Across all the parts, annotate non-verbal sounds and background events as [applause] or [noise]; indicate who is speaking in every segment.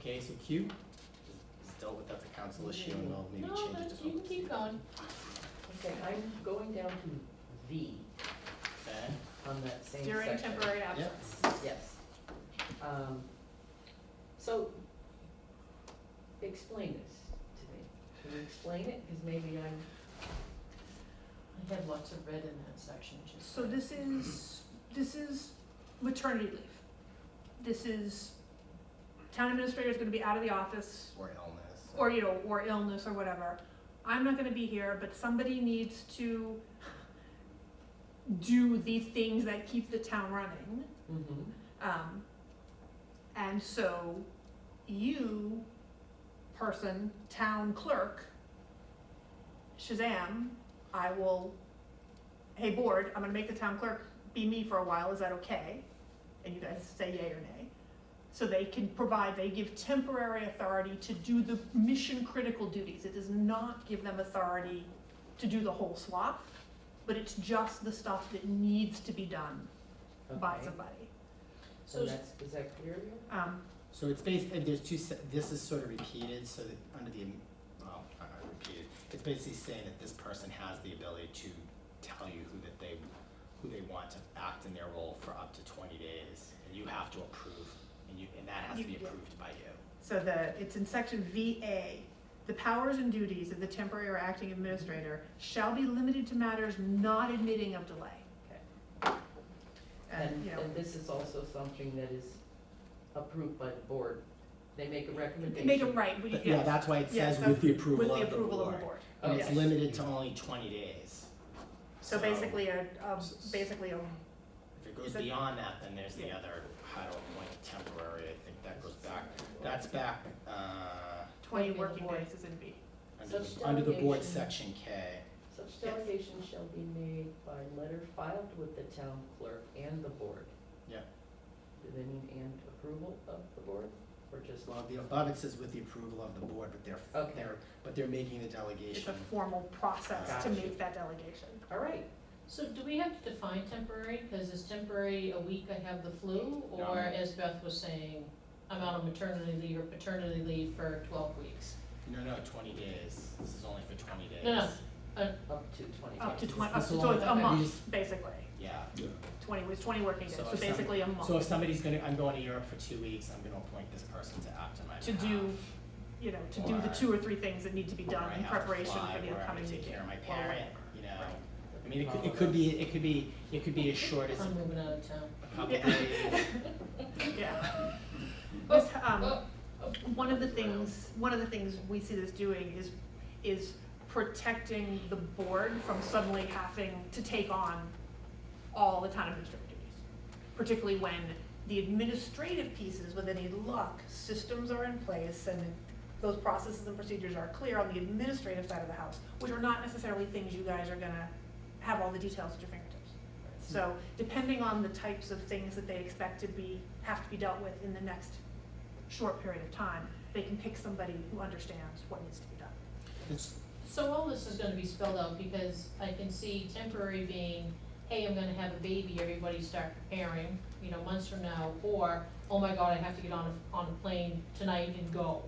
Speaker 1: Okay, so Q is dealt with, that's a council issue and we'll maybe
Speaker 2: No,
Speaker 1: change it to.
Speaker 2: that's, you can
Speaker 1: open
Speaker 2: keep
Speaker 1: season.
Speaker 2: going.
Speaker 3: Okay, I'm going down to V
Speaker 1: Okay,
Speaker 3: on that same section.
Speaker 2: During temporary absence.
Speaker 3: Yes. Um, So, explain this to me. Can you explain it? Because maybe I'm,
Speaker 2: I had lots of red in that section, just.
Speaker 4: So this is, this is maternity leave. This is, town administrator is gonna be out of the office,
Speaker 1: or illness.
Speaker 4: or, you know, or illness or whatever. I'm not gonna be here, but somebody needs to do the things that keep the town running.
Speaker 3: mm-hmm,
Speaker 4: Um, and so you, person, town clerk, Shazam, I will, hey board, I'm gonna make the town clerk be me for a while, is that okay? And you guys say yay or nay. So they can provide, they give temporary authority to do the mission critical duties. It does not give them authority to do the whole swath, but it's just the stuff that needs to be done by
Speaker 3: okay.
Speaker 4: somebody.
Speaker 3: So that's, is that clear? Leo?
Speaker 4: Um,
Speaker 1: So it's basically, there's two, se- this is sort of repeated, so that under the, am- well, I I repeated, it's basically saying that this person has the ability to tell you who that they, who they want to act in their role for up to twenty days, and you have to approve, and you, and that has to be
Speaker 4: You- yeah.
Speaker 1: approved by you.
Speaker 4: So the, it's in section VA. The powers and duties of the temporary or acting administrator shall be limited to matters not admitting of delay.
Speaker 3: Okay.
Speaker 4: And,
Speaker 3: And,
Speaker 4: you know,
Speaker 3: and this is also something that is approved by the board. They make a recommendation.
Speaker 4: make it right, we,
Speaker 1: But yeah,
Speaker 4: yes,
Speaker 1: that's why it
Speaker 4: Yeah,
Speaker 1: says
Speaker 4: so
Speaker 1: with the approval
Speaker 4: with
Speaker 1: of
Speaker 4: the
Speaker 1: the board.
Speaker 4: approval of the board.
Speaker 1: And it's
Speaker 4: Okay.
Speaker 1: limited to only twenty days.
Speaker 4: So basically a, um, basically a,
Speaker 1: If it goes
Speaker 4: Is that-
Speaker 1: beyond that, then there's the
Speaker 4: Yeah.
Speaker 1: other, I don't like temporary, I think that goes back, that's back, uh,
Speaker 4: twenty
Speaker 2: Working the
Speaker 4: working
Speaker 2: board.
Speaker 4: days is in B.
Speaker 1: under
Speaker 3: Such
Speaker 1: the, under the board
Speaker 3: delegation-
Speaker 1: section K.
Speaker 3: Such delegation shall be made by letter filed with the town clerk and the board.
Speaker 1: Yeah.
Speaker 3: Do they mean and approval of the board, or just?
Speaker 1: Well, the above it says with the approval of the board, but they're,
Speaker 3: Okay.
Speaker 1: they're, but they're making the
Speaker 4: It's
Speaker 1: delegation.
Speaker 4: a formal process to
Speaker 3: Gotcha.
Speaker 4: make that delegation.
Speaker 3: All right,
Speaker 2: So do we have to define temporary, cause is temporary a week I have the flu,
Speaker 1: No.
Speaker 2: or as Beth was saying, I'm out on maternity leave or paternity leave for twelve weeks?
Speaker 1: No, no, twenty days, this is only for twenty days.
Speaker 2: No, no.
Speaker 3: up to twenty.
Speaker 4: Up to
Speaker 1: It's-
Speaker 4: twenty,
Speaker 1: it's
Speaker 4: up to, so
Speaker 1: long.
Speaker 4: it's a
Speaker 2: Okay.
Speaker 4: month, basically.
Speaker 1: Yeah,
Speaker 4: Twenty, it's twenty working days,
Speaker 1: So
Speaker 4: so
Speaker 1: if some-
Speaker 4: basically a month.
Speaker 1: so if somebody's gonna, I'm going to Europe for two weeks, I'm gonna appoint this person to act on my behalf.
Speaker 4: To do, you know, to do the
Speaker 1: Or-
Speaker 4: two or three things that need to be
Speaker 1: where
Speaker 4: done
Speaker 1: I
Speaker 4: in
Speaker 1: have to
Speaker 4: preparation
Speaker 1: fly,
Speaker 4: for the
Speaker 1: where I'm
Speaker 4: upcoming
Speaker 1: gonna
Speaker 4: meeting.
Speaker 1: take care of my
Speaker 4: Well,
Speaker 1: parent, you know,
Speaker 4: Right.
Speaker 1: I mean, it could, it could be, it could be, it could be as short as
Speaker 2: I'm moving out of town.
Speaker 1: a couple
Speaker 4: [laughs]
Speaker 1: days.
Speaker 4: Yeah. This, um,
Speaker 2: Oh,
Speaker 4: one of the things, one of the things we see this doing is, is protecting the board from suddenly having to take on all the town administrative duties. Particularly when the administrative pieces, with any luck, systems are in place and those processes and procedures are clear on the administrative side of the house, which are not necessarily things you guys are gonna have all the details at your fingertips. So depending on the types of things that they expect to be, have to be dealt with in the next short period of time, they can pick somebody who understands what needs to be done.
Speaker 1: It's-
Speaker 2: So all this is gonna be spelled out, because I can see temporary being, hey, I'm gonna have a baby, everybody start preparing, you know, months from now, or, oh my god, I have to get on a, on a plane tonight and go.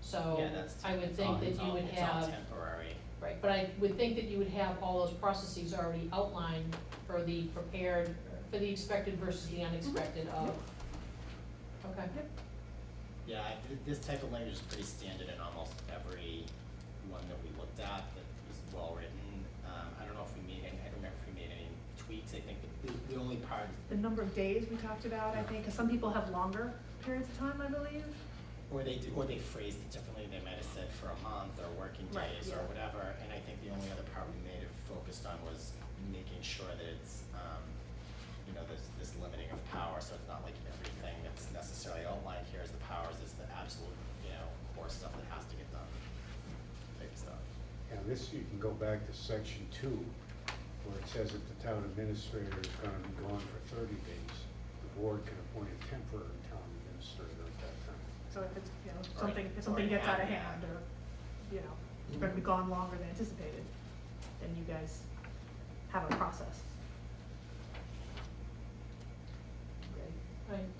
Speaker 2: So,
Speaker 1: Yeah, that's.
Speaker 2: I would
Speaker 1: it's all-
Speaker 2: think that
Speaker 1: it's
Speaker 2: you
Speaker 1: all-
Speaker 2: would
Speaker 1: It's all
Speaker 2: have,
Speaker 1: temporary.
Speaker 2: right, but I would think that you would have all those processes already outlined for the prepared, for the expected versus the unexpected of. Okay,
Speaker 1: Yeah, I- th- this type of language is pretty standard in almost every one that we looked at that was well-written. Um, I don't know if we made any, I don't remember if we made any tweaks. I think the, the only part,
Speaker 4: The number of days we talked about, I think, because some people have longer periods of time, I believe.
Speaker 1: or they, d- or they phrased it differently. They might have said for a month or working
Speaker 4: Right,
Speaker 1: days or
Speaker 4: yeah.
Speaker 1: whatever. And I think the only other part we may have focused on was making sure that it's, um, you know, there's this limiting of power. So it's not like everything that's necessarily outlined here is the powers, it's the absolute, you know, core stuff that has to get done type stuff.
Speaker 5: And this, you can go back to section two, where it says that the town administrator is gonna be gone for thirty days. The board can appoint a temporary town administrator at that time.
Speaker 4: So if it's, you know, if
Speaker 1: Or-
Speaker 4: something, if
Speaker 1: or
Speaker 4: something gets out of
Speaker 1: add that.
Speaker 4: hand or, you know, it's gonna be gone longer than anticipated, then you guys have a process.
Speaker 3: Okay.
Speaker 2: right,